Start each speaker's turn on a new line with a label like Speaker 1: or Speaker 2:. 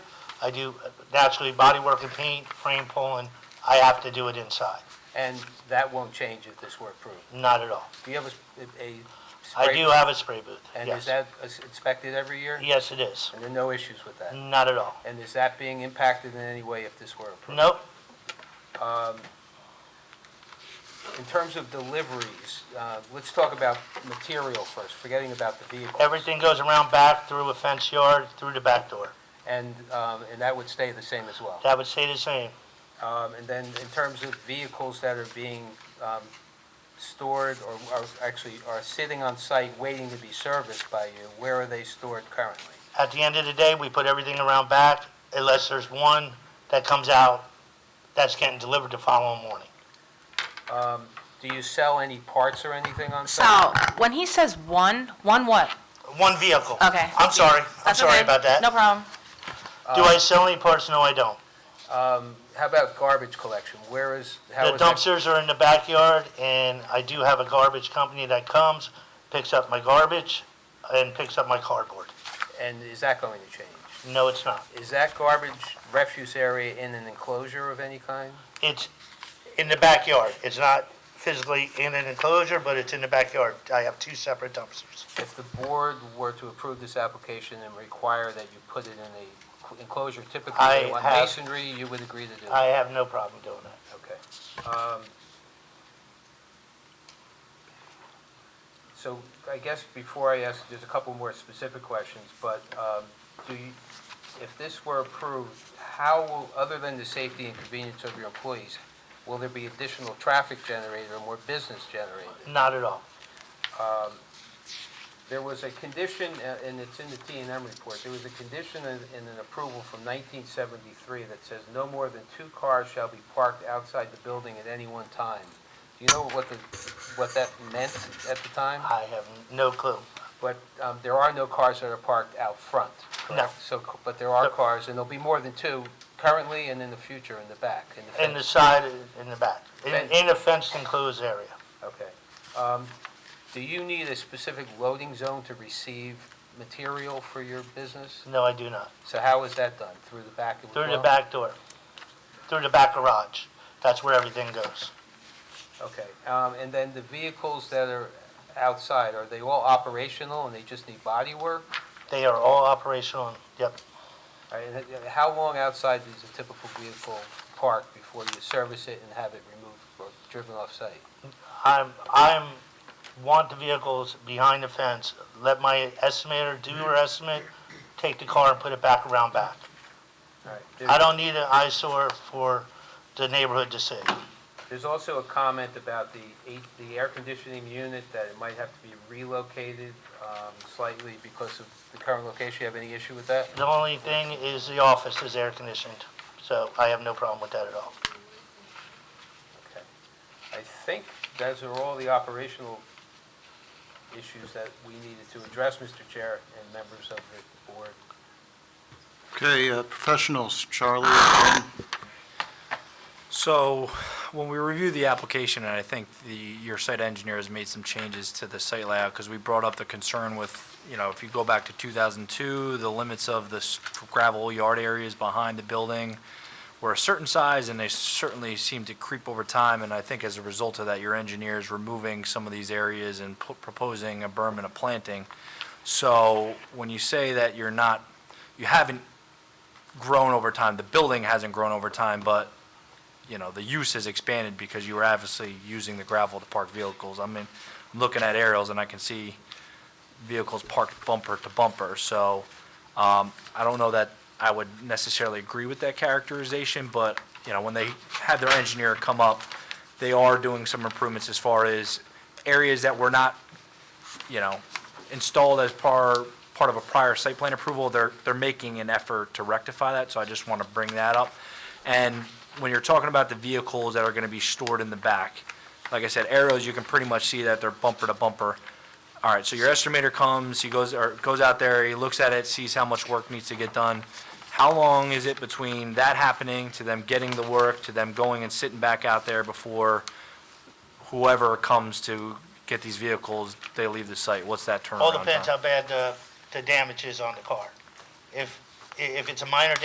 Speaker 1: I do uh, naturally bodywork and paint, frame pulling. I have to do it inside.
Speaker 2: And that won't change if this were approved.
Speaker 1: Not at all.
Speaker 2: Do you have a, a spray?
Speaker 1: I do have a spray booth,
Speaker 2: And
Speaker 1: yes.
Speaker 2: is that is inspected every year?
Speaker 1: Yes, it is.
Speaker 2: And there are no issues with that?
Speaker 1: Not at all.
Speaker 2: And is that being impacted in any way if this were approved?
Speaker 1: Nope,
Speaker 2: In terms of deliveries, uh, let's talk about material first, forgetting about the vehicle.
Speaker 1: everything goes around back through a fence yard, through the back door.
Speaker 2: And, um, and that would stay the same as well?
Speaker 1: That would stay the same.
Speaker 2: Um, And then in terms of vehicles that are being um, stored or are actually are sitting on site waiting to be serviced by you, where are they stored currently?
Speaker 1: At the end of the day, we put everything around back unless there's one that comes out that's getting delivered the following morning.
Speaker 2: Do you sell any parts or anything on site?
Speaker 3: So, when he says one, one what?
Speaker 1: One vehicle.
Speaker 3: Okay.
Speaker 1: I'm sorry. I'm
Speaker 3: That's
Speaker 1: sorry
Speaker 3: okay.
Speaker 1: about that.
Speaker 3: No problem.
Speaker 1: Do I sell any parts? No, I don't.
Speaker 2: Um, How about garbage collection? Where is, how
Speaker 1: The
Speaker 2: is that?
Speaker 1: dumpsters are in the backyard, and I do have a garbage company that comes, picks up my garbage, and picks up my cardboard.
Speaker 2: And is that going to change?
Speaker 1: No, it's not.
Speaker 2: Is that garbage refuse area in an enclosure of any kind?
Speaker 1: It's in the backyard. It's not physically in an enclosure, but it's in the backyard. I have two separate dumpsters.
Speaker 2: If the board were to approve this application and require that you put it in a enclosure typically
Speaker 1: I
Speaker 2: on
Speaker 1: have-
Speaker 2: masonry, you would agree to do it?
Speaker 1: I have no problem doing that.
Speaker 2: Okay. Um, So I guess before I ask, there's a couple more specific questions, but um, do you, if this were approved, how, will other than the safety and convenience of your employees, will there be additional traffic generated or more business generated?
Speaker 1: Not at all.
Speaker 2: There was a condition, uh, and it's in the T and M report, there was a condition in in an approval from 1973 that says no more than two cars shall be parked outside the building at any one time. Do you know what the, what that meant at the time?
Speaker 1: I have no clue.
Speaker 2: But um, there are no cars that are parked out front, correct? So, c- but there are
Speaker 1: Yep.
Speaker 2: cars, and there'll be more than two currently and in the future in the back, in the
Speaker 1: In the
Speaker 2: fence.
Speaker 1: side, in the back, in,
Speaker 2: Fence.
Speaker 1: in a fenced enclosed area.
Speaker 2: Okay. Um, Do you need a specific loading zone to receive material for your business?
Speaker 1: No, I do not.
Speaker 2: So how is that done? Through the back? of
Speaker 1: Through the
Speaker 2: well?
Speaker 1: back door, through the back garage. That's where everything goes.
Speaker 2: Okay, um, and then the vehicles that are outside, are they all operational and they just need body work?
Speaker 1: They are all operational. Yep.
Speaker 2: All right, Uh, and then How long outside does a typical vehicle park before you service it and have it removed or driven off-site?
Speaker 1: I'm, I'm, want the vehicles behind the fence. Let my estimator do her estimate, take the car and put it back around back.
Speaker 2: All right,
Speaker 1: I
Speaker 2: there-
Speaker 1: don't need an eyesore for the neighborhood to see.
Speaker 2: There's also a comment about the eight, the air conditioning unit, that it might have to be relocated um, slightly because of the current location. You have any issue with that?
Speaker 1: The only thing is the office is air conditioned, so I have no problem with that at all.
Speaker 2: Okay. I think those are all the operational issues that we needed to address, Mr. Chair, and members of the board.
Speaker 4: Okay, uh, professionals, Charlie, again.
Speaker 5: So, when we reviewed the application, and I think the, your site engineer has made some changes to the site layout, because we brought up the concern with, you know, if you go back to 2002, the limits of the s- gravel yard areas behind the building were a certain size, and they certainly seemed to creep over time, and I think as a result of that, your engineer is removing some of these areas and pu- proposing a berm and a planting. So, when you say that you're not, you haven't grown over time, the building hasn't grown over time, but you know, the use has expanded because you were obviously using the gravel to park vehicles. I mean, I'm looking at aerials and I can see vehicles parked bumper to bumper. So, um, I don't know that I would necessarily agree with that characterization, but, you know, when they had their engineer come up, they are doing some improvements as far as areas that were not, you know, installed as par, part of a prior site plan approval. They're, they're making an effort to rectify that, so I just want to bring that up. And when you're talking about the vehicles that are going to be stored in the back, like I said, arrows, you can pretty much see that they're bumper to bumper. All right, so your estimator comes, he goes, or goes out there, he looks at it, sees how much work needs to get done. How long is it between that happening to them getting the work, to them going and sitting back out there before whoever comes to get these vehicles, they leave the site? What's that turnaround time?
Speaker 1: All depends how bad the, the damage is on the car. If, i- if it's a minor